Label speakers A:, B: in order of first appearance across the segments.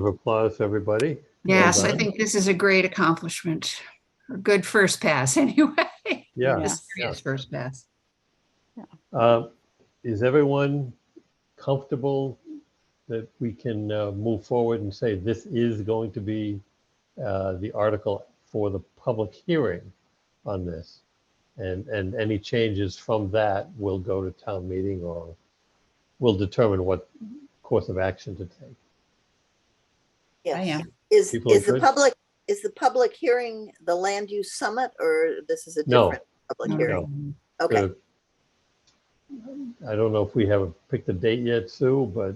A: of applause, everybody. Well
B: Yes, I
A: done.
B: think this is a great accomplishment. A good first pass, anyway.
A: Yeah.
B: Serious First pass.
A: Uh, Is everyone comfortable that we can uh, move forward and say this is going to be uh, the article for the public hearing on this? And, and any changes from that will go to town meeting or will determine what course of action to take.
B: I
C: Yes.
B: am.
C: Is,
A: People
C: is the
A: interested?
C: public, is the public hearing the land use summit or this is a
A: No.
C: different public hearing?
B: Um,
C: Okay,
A: Uh, I don't know if we have picked a date yet, Sue, but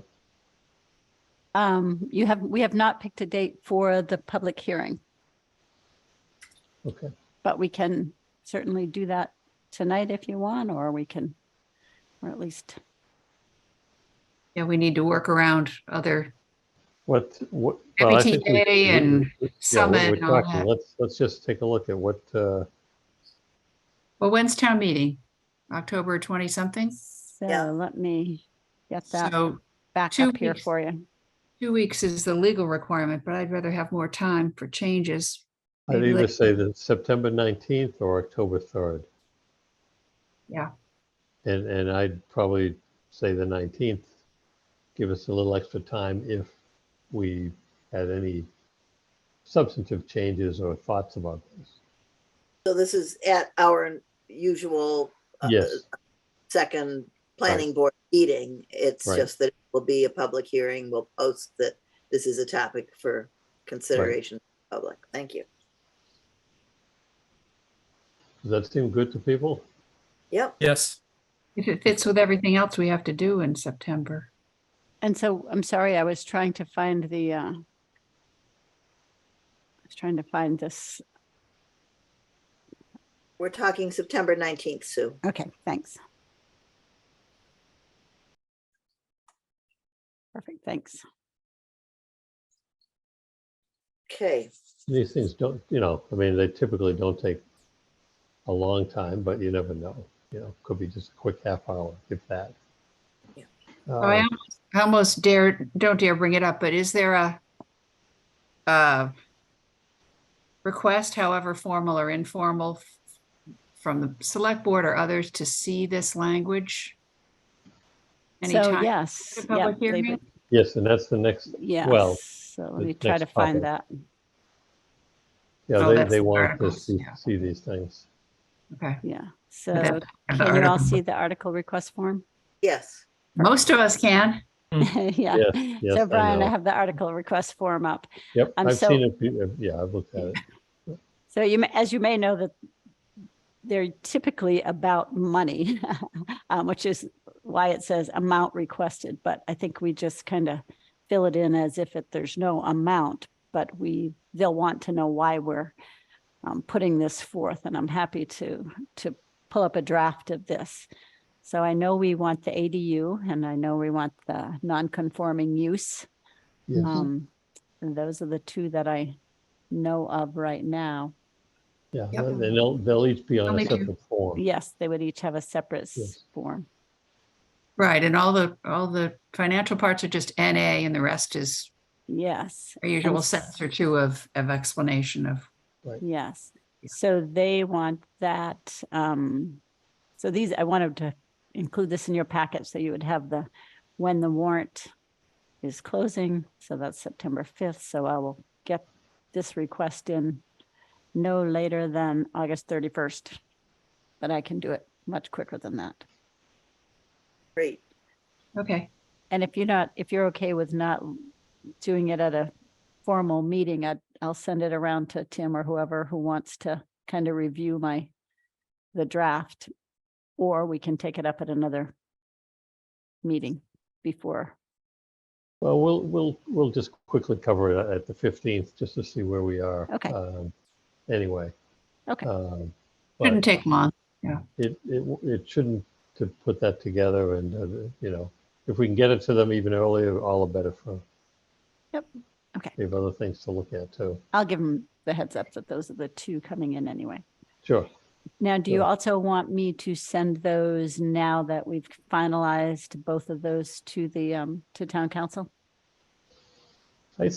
D: Um, you have, we have not picked a date for the public hearing,
A: okay.
D: but we can certainly do that tonight if you want, or we can, or at least,
B: Yeah, we need to work around other
A: What, what? well, I think we-
B: MBTA and
A: we- we- yeah,
B: Summit
A: we're-
B: and
A: we're
B: all
A: talking.
B: that.
A: Let's, let's just take a look at what, uh,
B: Well, when's town meeting? October 20 something?
D: so
C: Yeah.
D: uh, let me get that
B: So
D: back
B: two
D: up here
B: weeks.
D: for you.
B: two weeks is the legal requirement, but I'd rather have more time for changes.
A: I'd
B: Maybe
A: either
B: like-
A: say that September 19th or October 3rd.
B: Yeah.
A: And, and I'd probably say the 19th. Give us a little extra time if we had any substantive changes or thoughts about this.
C: so this is at our usual uh,
A: Yes,
C: second planning board meeting. It's
A: Right.
C: just that it will be a public hearing. We'll post that this is a topic for consideration of the public. Thank you.
A: does that seem good to people?
C: Yep,
E: Yes.
B: If it fits with everything else we have to do in September.
D: And so, I'm sorry, I was trying to find the, uh, I was trying to find this.
C: we're talking September 19th, Sue.
D: Okay, thanks. Perfect, thanks.
C: Okay,
A: These things don't, you know, I mean, they typically don't take a long time, but you never know. You know, could be just a quick half hour, if that.
C: Yeah.
B: So I
A: Uh,
B: almost- I almost dare, don't dare bring it up, but is there a, a request, however formal or informal, f- from the select board or others to see this language?
D: So,
B: Anytime?
D: yes.
B: the public
D: yeah, leave
B: hearing?
D: it-
A: Yes, and that's the next well,
D: Yes, so let
A: the
D: me try to
A: next
D: find
A: topic.
D: that.
A: Yeah,
B: Oh,
A: they,
B: that's
A: they
B: the
A: want to
B: articles,
A: see,
B: yeah.
A: see these things.
B: Okay.
D: Yeah,
B: But
D: so
B: that-
D: can you all see the article request form?
C: yes.
B: Most of us can.
D: Yeah.
A: Yes, yes, I
D: So Brian,
A: know.
D: I have the article request form up.
A: Yep,
D: I'm
A: I've
D: so-
A: seen it, be- uh, yeah, I've looked at it.
D: So you, may- as you may know, that they're typically about money, um, which is why it says amount requested. But I think we just kind of fill it in as if it, there's no amount, but we, they'll want to know why we're um, putting this forth. And I'm happy to, to pull up a draft of this. So I know we want the ADU and I know we want the non-conforming use.
A: Yes.
D: Um, and those are the two that I know of right now.
A: Yeah,
B: Yep.
A: and they'll, they'll each be on a
B: Only two.
A: separate form.
D: Yes, they would each have a separate s-
A: Yes.
D: form.
B: Right, and all the, all the financial parts are just NA and the rest is
D: Yes,
B: our usual
D: s-
B: sentence or two of, of explanation of,
D: yes.
B: Yeah.
D: So they want that. um, So these, I wanted to include this in your packet so you would have the, when the warrant is closing. So that's September 5th. So I will get this request in no later than August 31st. But I can do it much quicker than that.
C: Great.
B: okay.
D: And if you're not, if you're okay with not doing it at a formal meeting, I, I'll send it around to Tim or whoever who wants to kind of review my, the draft. Or we can take it up at another meeting before.
A: Well, we'll, we'll, we'll just quickly cover it at the 15th, just to see where we are.
D: Okay.
A: um, Anyway.
D: Okay.
A: um, but-
B: Shouldn't take long.
A: it, it, w- it shouldn't to put that together and, uh, you know, if we can get it to them even earlier, all the better for.
D: Yep. Okay.
A: They have other things to look at too.
D: I'll give them the heads up that those are the two coming in anyway.
A: Sure.
D: Now, do you
A: Sure.
D: also want me to send those now that we've finalized both of those to the, um, to town council?